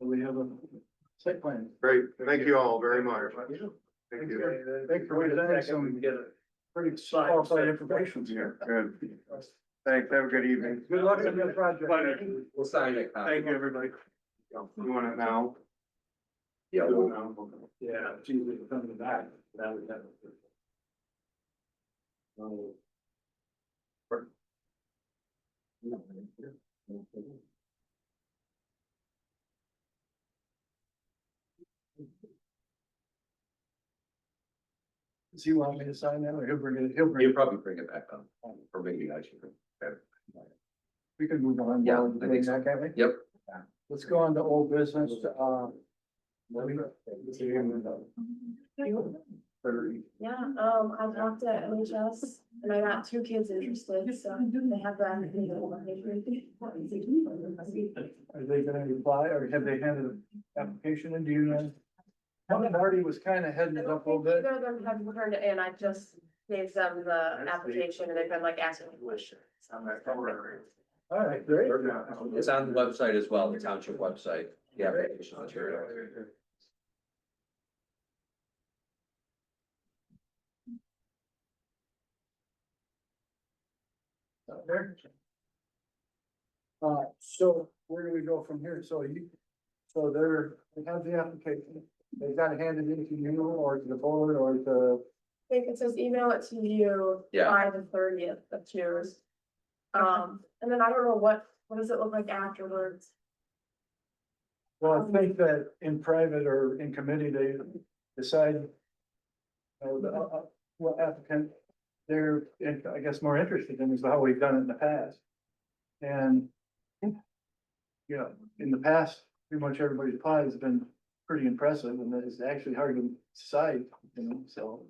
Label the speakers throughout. Speaker 1: we have a site plan.
Speaker 2: Great, thank you all very much. Thank you.
Speaker 1: Thanks for presenting some pretty qualified information here.
Speaker 2: Good. Thanks, have a good evening.
Speaker 1: Good luck on your project.
Speaker 3: We'll sign it.
Speaker 1: Thank you, everybody.
Speaker 2: You want it now?
Speaker 1: Yeah.
Speaker 2: You want it now?
Speaker 1: Yeah, geez, we can come back. That would happen. Does he want me to sign that or he'll bring it, he'll bring
Speaker 3: You'll
Speaker 1: it,
Speaker 3: probably bring it back up, or maybe I should.
Speaker 1: we can move on.
Speaker 3: Yeah,
Speaker 1: while
Speaker 3: I
Speaker 1: we're doing
Speaker 3: think so.
Speaker 1: that, can't we?
Speaker 3: Yep.
Speaker 1: Let's go on to old business, uh. let me- Thirty.
Speaker 4: Yeah, um, I talked to MHS and I got two kids interested, so they have that. you know,
Speaker 1: Are they gonna reply or have they handed an application in? Do you know? Helen Hardy was kind of heading
Speaker 4: I
Speaker 1: it
Speaker 4: don't
Speaker 1: up a little
Speaker 4: think
Speaker 1: bit.
Speaker 4: Either of them have returned it, and I just gave them the
Speaker 2: That's the-
Speaker 4: application and they've been like asking me questions. so I'm
Speaker 2: That's all right.
Speaker 1: All right, great.
Speaker 3: It's on the website as well, the township website, the application material.
Speaker 1: Out there. Uh, so where do we go from here? So you, so they're, they have the application, they've got to hand it in to you or to the board or to.
Speaker 4: I think it says email it to you
Speaker 3: Yeah.
Speaker 4: by the thirtieth of Tuesday. Um, and then I don't know what, what does it look like afterwards?
Speaker 1: Well, I think that in private or in committee, they decide. you know, the, uh, uh, what applicant they're, in- I guess, more interested in is how we've done it in the past. And. You know, in the past, pretty much everybody's pie has been pretty impressive and it's actually hard to decide, you know, so.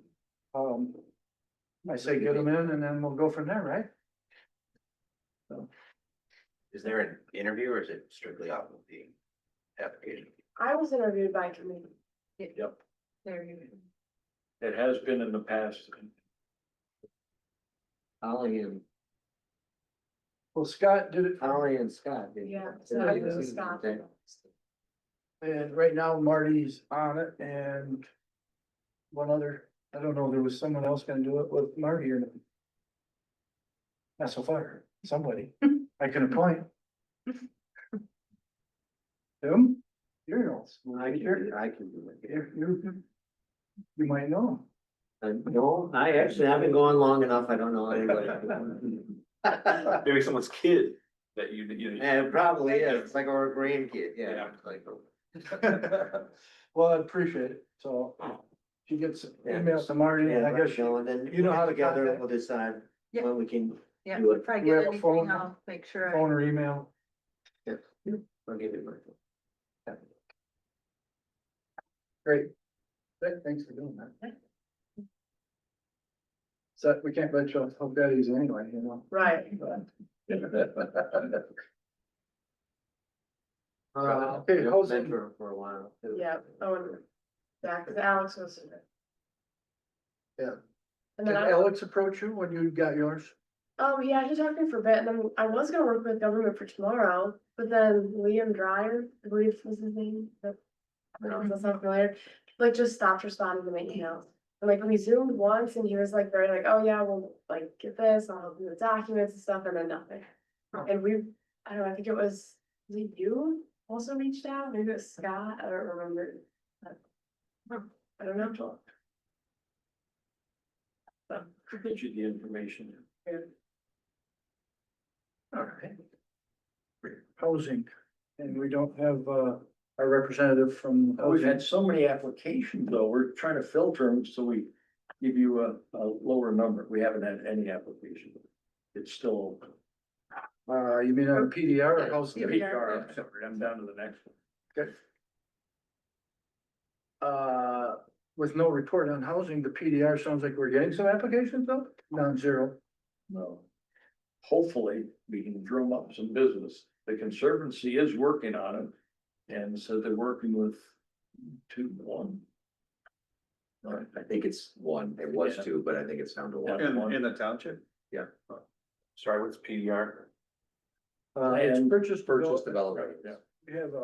Speaker 1: Um, I say get them in and then we'll go from there, right?
Speaker 5: Is there an interview or is it strictly off of the application?
Speaker 4: I was interviewed by committee.
Speaker 5: Yep.
Speaker 4: There you go.
Speaker 1: It has been in the past.
Speaker 6: Ollie and,
Speaker 1: Well, Scott did it.
Speaker 6: Ollie and Scott. didn't
Speaker 4: Yeah,
Speaker 6: they?
Speaker 4: so I was stopped.
Speaker 1: And right now Marty's on it and one other, I don't know, there was someone else gonna do it with Marty or not. Not so far, somebody, I can appoint. Him, you're else,
Speaker 6: I can, do it, I can do it.
Speaker 1: you, you, you might know
Speaker 6: I- Uh, No, I actually haven't gone long enough, I don't know anybody.
Speaker 3: Maybe someone's kid that you, you.
Speaker 6: Yeah, it probably is, it's like our grandkid, yeah.
Speaker 3: Yeah.
Speaker 6: it's like,
Speaker 1: him. Well, I appreciate it, so she gets
Speaker 6: Yeah.
Speaker 1: emails to Marty, and
Speaker 6: Yeah,
Speaker 1: I guess she
Speaker 6: and then.
Speaker 1: you know how to
Speaker 6: Together,
Speaker 1: contact-
Speaker 6: we'll decide
Speaker 7: Yeah.
Speaker 6: when we can,
Speaker 7: Yeah,
Speaker 6: Do it.
Speaker 7: if I
Speaker 1: Do we
Speaker 7: get
Speaker 1: have a phone?
Speaker 7: anything, I'll make sure. I-
Speaker 1: phone or email.
Speaker 6: I'll give you my.
Speaker 1: Great. Th- Thanks for doing that. So we can't let you off hook that easy anyway, you know?
Speaker 4: Right.
Speaker 1: Uh, okay, how's it-
Speaker 6: Mentor for a while. too.
Speaker 4: Yeah, oh, and yeah, because Alex was.
Speaker 1: Yeah.
Speaker 4: And
Speaker 1: Did
Speaker 4: then I,
Speaker 1: Alex approach you when you got yours?
Speaker 4: um, yeah, he talked to me for a bit, and then I was gonna work with government for tomorrow, but then Liam Dryer, I believe was his name, but. I don't know, that's not familiar, like just stopped responding to my emails. And like we zoomed once and he was like very like, oh yeah, we'll like get this, I'll help you with documents and stuff, and then nothing. And we, I don't know, I think it was, was it you also reached out, maybe it was Scott, I don't remember. but- I don't know.
Speaker 1: Get you the information. All right. Housing, and we don't have, uh, our representative from.
Speaker 8: We've
Speaker 1: housing.
Speaker 8: had so many applications though, we're trying to filter them, so we give you a, a lower number, we haven't had any application. It's still. open.
Speaker 1: Uh, you mean on PDR or housing?
Speaker 8: PDR, I'm sorry, I'm down to the next one.
Speaker 1: Uh, with no report on housing, the PDR sounds like we're getting some applications though, non-zero.
Speaker 8: No. Hopefully, we can drum up some business. The Conservancy is working on it. And so they're working with two, one. Right.
Speaker 5: I think it's one, it was two, but I think it's down to one.
Speaker 8: In-
Speaker 3: the township? Yeah. Sorry, what's PDR?
Speaker 1: Uh,
Speaker 8: Land
Speaker 1: purchase
Speaker 3: Purchase development.
Speaker 1: Uh, We have uh, a